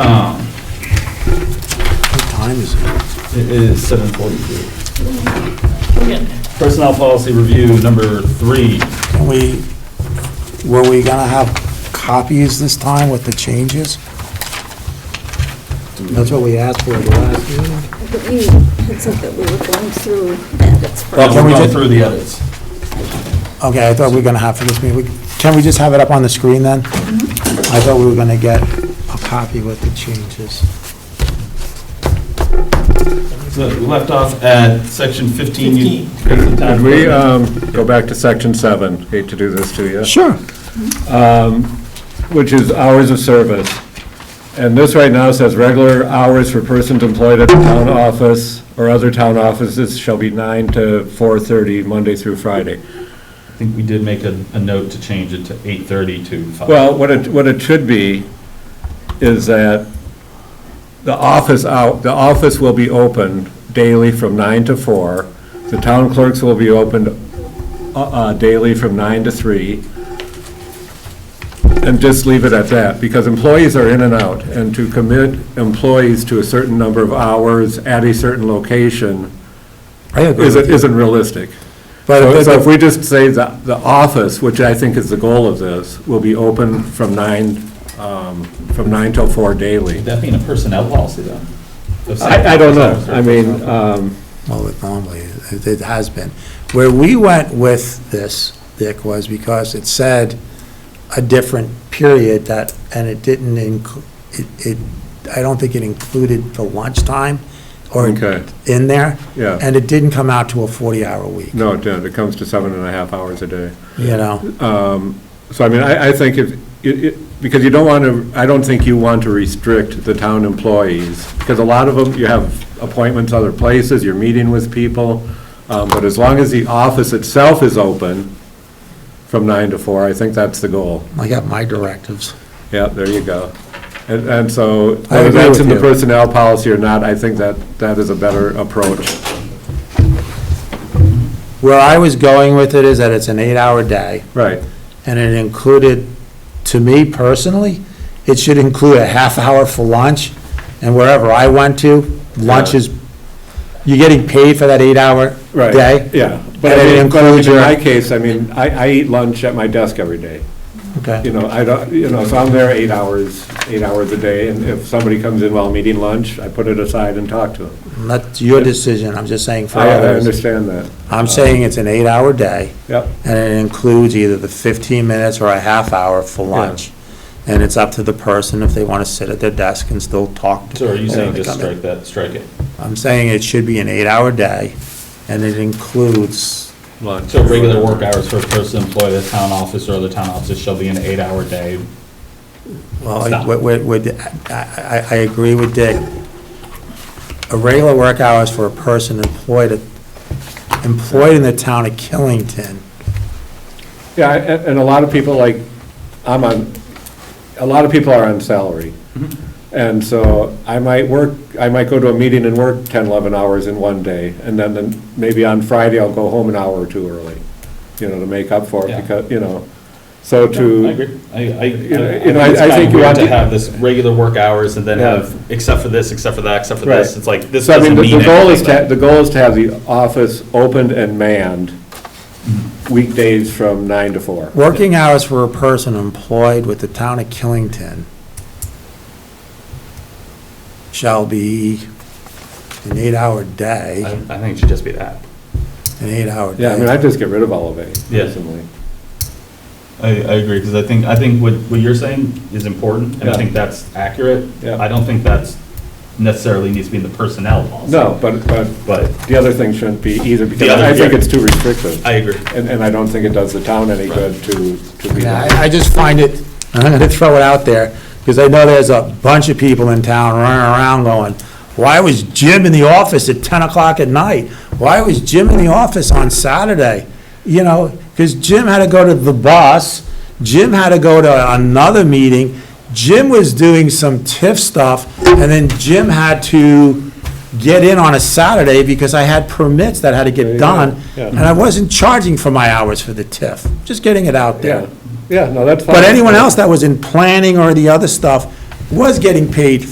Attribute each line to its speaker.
Speaker 1: Um, is seven forty-three.
Speaker 2: Yeah.
Speaker 1: Personnel policy review number three.
Speaker 3: Can we, were we gonna have copies this time with the changes? That's what we asked for the last meeting.
Speaker 4: I believe it said that we were going through edits for
Speaker 1: Well,
Speaker 3: Can we
Speaker 1: we'll go
Speaker 3: just-
Speaker 1: through the edits.
Speaker 3: Okay, I thought we were gonna have for this meeting. We- Can we just have it up on the screen then? I thought we were gonna get a copy with the changes.
Speaker 1: So we left off at section fifteen. You- Here's the time.
Speaker 5: Could we um, go back to section seven? Hate to do this to you.
Speaker 3: Sure.
Speaker 5: Which is hours of service. And this right now says regular hours for persons employed at the town office or other town offices shall be nine to four-thirty, Monday through
Speaker 1: I
Speaker 5: Friday.
Speaker 1: think we did make a, a note to change it to eight thirty to five.
Speaker 5: Well, what it, what it should be is that the office out, the office will be open daily from nine to four. The town clerks will be opened uh, uh, daily from nine to three. And just leave it at that, because employees are in and out, and to commit employees to a certain number of hours at a certain location
Speaker 3: I agree with
Speaker 5: isn't,
Speaker 3: you.
Speaker 5: isn't realistic.
Speaker 3: But
Speaker 5: So
Speaker 3: if-
Speaker 5: so if we just say that the office, which I think is the goal of this, will be open from nine, um, from nine till four daily.
Speaker 1: Would that be in a personnel policy though? Of
Speaker 5: I, I don't know.
Speaker 1: section-
Speaker 5: I mean, um,
Speaker 3: Well, it normally, it it has been. Where we went with this, Dick, was because it said a different period that, and it didn't include, it, it, I don't think it included the lunchtime or
Speaker 5: Okay.
Speaker 3: in there.
Speaker 5: Yeah.
Speaker 3: And it didn't come out to a 40-hour week,
Speaker 5: no, it don't. It comes to seven and a half hours a day.
Speaker 3: you know?
Speaker 5: So I mean, I, I think if, it, it, because you don't want to, I don't think you want to restrict the town employees, because a lot of them, you have appointments other places, you're meeting with people, um, but as long as the office itself is open from nine to four, I think that's the goal.
Speaker 3: I got my directives.
Speaker 5: Yeah, there you go. And, and so,
Speaker 3: I agree
Speaker 5: whether that's in the
Speaker 3: with you.
Speaker 5: personnel policy or not, I think that, that is a better approach.
Speaker 3: Where I was going with it is that it's an eight-hour day,
Speaker 5: Right.
Speaker 3: and it included, to me personally, it should include a half hour for lunch, and wherever I went to, lunch
Speaker 5: Yeah.
Speaker 3: is, you're getting paid for that eight-hour
Speaker 5: Right.
Speaker 3: day?
Speaker 5: Yeah. But
Speaker 3: And
Speaker 5: I
Speaker 3: it
Speaker 5: mean, but I mean,
Speaker 3: includes
Speaker 5: in
Speaker 3: your-
Speaker 5: my case, I mean, I, I eat lunch at my desk every day. You
Speaker 3: Okay,
Speaker 5: know, I don't, you know, so I'm there eight hours, eight hours a day, and if somebody comes in while I'm eating lunch, I put it aside and talk to them.
Speaker 3: And that's your decision, I'm just saying for
Speaker 5: I, I
Speaker 3: others.
Speaker 5: understand that.
Speaker 3: I'm saying it's an eight-hour day,
Speaker 5: Yep.
Speaker 3: and it includes either the fifteen minutes or a half hour for lunch. And it's up to the person if they want to sit at their desk and still talk. to
Speaker 1: So are you
Speaker 3: people
Speaker 1: saying
Speaker 3: when they
Speaker 1: just
Speaker 3: come in.
Speaker 1: strike that, strike it?
Speaker 3: I'm saying it should be an eight-hour day, and it includes
Speaker 5: Lunch.
Speaker 1: So regular work hours for a person employed at a town office or other town offices shall be an eight-hour day.
Speaker 3: Well,
Speaker 1: Stop.
Speaker 3: I- what- what- what- I, I, I agree with Dick. Irregular work hours for a person employed, at- employed in the town of Killington.
Speaker 5: Yeah, and, and a lot of people like, I'm on, a lot of people are on salary.
Speaker 1: Mm-hmm.
Speaker 5: And so I might work, I might go to a meeting and work 10, 11 hours in one day, and then, then maybe on Friday I'll go home an hour or two early, you know, to make up for
Speaker 1: Yeah.
Speaker 5: it, because, you know, so to.
Speaker 1: I agree. I, I,
Speaker 5: you know, I-
Speaker 1: I
Speaker 5: I
Speaker 1: think
Speaker 5: think
Speaker 1: it's
Speaker 5: you
Speaker 1: weird
Speaker 5: want
Speaker 1: to
Speaker 5: to-
Speaker 1: have this regular work hours and then
Speaker 5: Yeah.
Speaker 1: have, except for this, except for that, except for
Speaker 5: Right.
Speaker 1: this. It's like, this
Speaker 5: So I mean,
Speaker 1: doesn't mean
Speaker 5: the- The goal is
Speaker 1: anything.
Speaker 5: to,
Speaker 1: but-
Speaker 5: the goal is to have the office opened and manned weekdays from nine to four.
Speaker 3: Working hours for a person employed with the town of Killington shall be an eight-hour day,
Speaker 1: I
Speaker 3: an
Speaker 1: I think it should just be that.
Speaker 3: eight-hour day.
Speaker 5: Yeah, I mean, I'd just get rid of all of it
Speaker 1: Yeah.
Speaker 5: personally.
Speaker 1: I, I agree, because I think, I think what, what you're saying is important, and I
Speaker 5: Yeah.
Speaker 1: think that's accurate.
Speaker 5: Yeah.
Speaker 1: I don't think that's necessarily needs to be in the personnel policy.
Speaker 5: No, but, but
Speaker 1: But
Speaker 5: The other thing shouldn't be either, because
Speaker 1: other-
Speaker 5: I think
Speaker 1: yeah.
Speaker 5: it's too restrictive.
Speaker 1: I agree.
Speaker 5: And, and I don't think it does the town any good to, to be. Uh-huh.
Speaker 3: Yeah, I I just find it, I'm going to throw it out there, because I know there's a bunch of people in town running around going, why was Jim in the office at 10 o'clock at night? Why was Jim in the office on Saturday? You know, because Jim had to go to the bus, Jim had to go to another meeting, Jim was doing some TIF stuff, and then Jim had to get in on a Saturday because I had permits that had to
Speaker 5: There
Speaker 3: get
Speaker 5: you go,
Speaker 3: done,
Speaker 5: yeah.
Speaker 3: and I wasn't charging for my hours for the TIF, just getting it out there.
Speaker 5: Yeah, yeah, no, that's fine.
Speaker 3: But anyone else that was in planning or the other stuff was getting paid